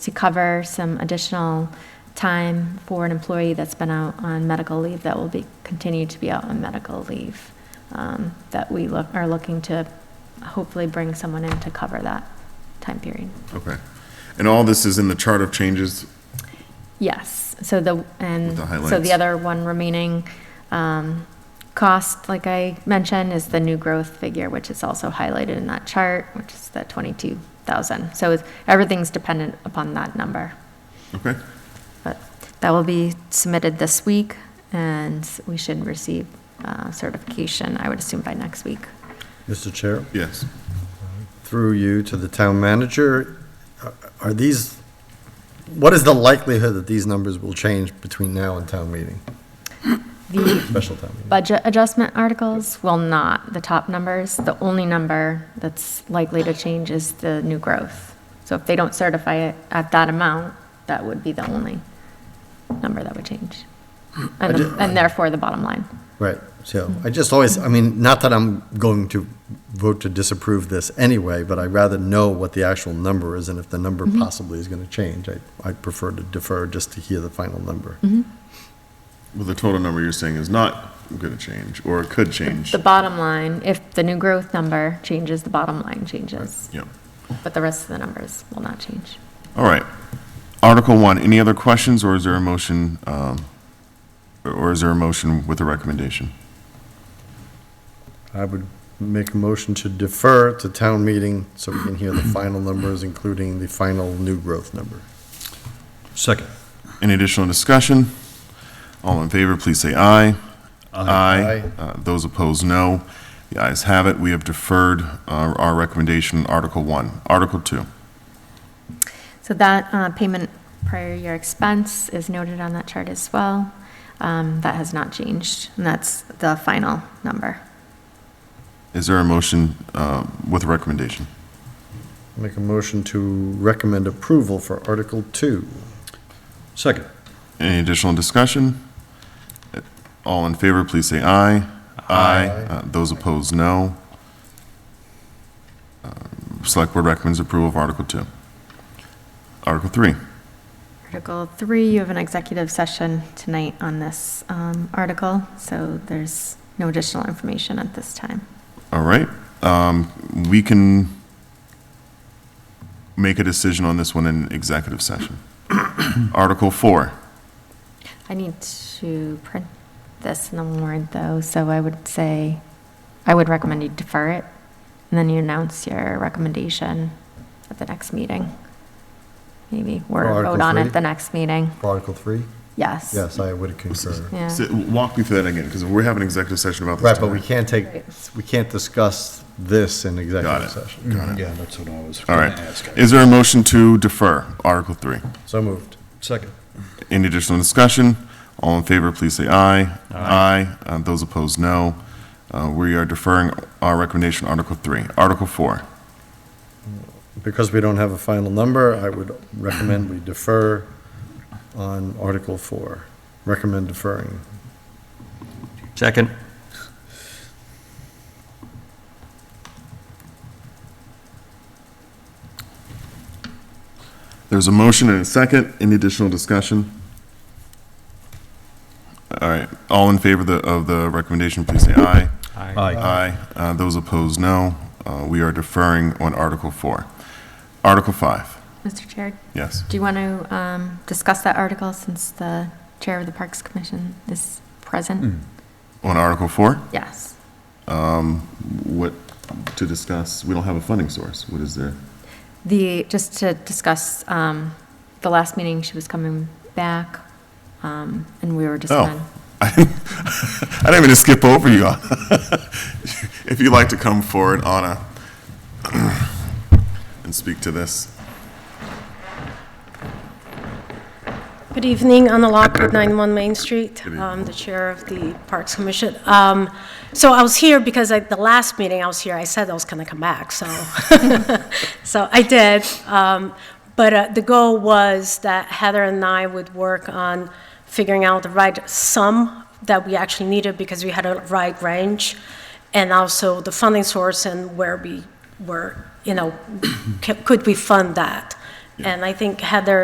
to cover some additional time for an employee that's been out on medical leave that will be, continue to be out on medical leave, um, that we look, are looking to hopefully bring someone in to cover that time period. Okay. And all this is in the chart of changes? Yes, so the, and, With the so highlights. the other one remaining um, cost, like I mentioned, is the new growth figure, which is also highlighted in that chart, which is the 22,000. So it's- everything's dependent upon that number. Okay. But that will be submitted this week, and we should receive uh, certification, I would assume by next week. Mr. Chair, Yes. through you to the town manager, are- are these, what is the likelihood that these numbers will change between now and town meeting, The special town meeting? budget adjustment articles will not, the top numbers, the only number that's likely to change is the new growth. So if they don't certify it at that amount, that would be the only number that would change. And, the- and therefore the bottom line. Right, so I just always, I mean, not that I'm going to vote to disapprove this anyway, but I'd rather know what the actual number is, and if the number possibly is going to change, I, I prefer to defer just to hear the final number. Well, the total number you're saying is not going to change, or it could change. The bottom line, if the new growth number changes, the bottom line changes, Yep. but the rest of the numbers will not change. All right. Article one, any other questions, or is there a motion, um, or- or is there a motion with a recommendation? I would make a motion to defer to town meeting so we can hear the final numbers, including the final new growth number. Second. Any additional discussion? All in favor, please say aye. Aye. Aye. Uh, Those opposed, no. The ayes have it. We have deferred uh, our recommendation, Article one. Article two. So that uh, payment prior year expense is noted on that chart as well. Um, That has not changed, and that's the final number. Is there a motion uh, with a recommendation? Make a motion to recommend approval for Article Two. Second. Any additional discussion? All in favor, please say aye. Uh, Those opposed, no. Uh, Select Board recommends approval of Article 2. Article 3, Article three, you have an executive session tonight on this um, article, so there's no additional information at this time. all right. Um, We can make a decision on this one in executive session. Article 4, I need to print this in the warrant, though, so I would say, I would recommend you defer it, and then you announce your recommendation at the next meeting, maybe, or For Article vote on it three? at the next meeting. For Article Three? Yes. Yes, I would concur. Yeah. Sit- walk me through that again, because we're having an executive session about this. Right, but we tonight. can't take, Right. we can't discuss this in Got executive it. session. Got it. Yeah, that's what I was All going to ask. right. Is there a motion to defer Article 3? So moved. Second. Any additional discussion? All in favor, please say aye. Aye. Uh, Those opposed, no. Uh, We are deferring our recommendation, Article 3. Article 4, Because we don't have a final number, I would recommend we defer on Article Four. Recommend deferring. Second. there's a motion and a second. Any additional discussion? All right, all in favor of the- of the recommendation, please say aye. Aye. Aye. Uh, Those opposed, no. Uh, We are deferring on Article 4. Article 5, Mr. Chair, yes. do you want to um, discuss that article since the Chair of the Parks Commission is present? On Article 4, Yes. what to discuss? We don't have a funding source. What is there? The, just to discuss, um, the last meeting, she was coming back, um, and we were just Oh. on. I didn't mean to skip over you. If you'd like to come forward, Anna, and speak to this. Good evening, Anna Lockwood, 91 Main Street. Good evening. I'm the Chair of the Parks Commission. Um, So I was here because at the last meeting I was here, I said I was going to come back, so, so I did. Um, But uh, the goal was that Heather and I would work on figuring out the right sum that we actually needed because we had a right range, and also the funding source and where we were, you know, c- could we fund that? And I think Heather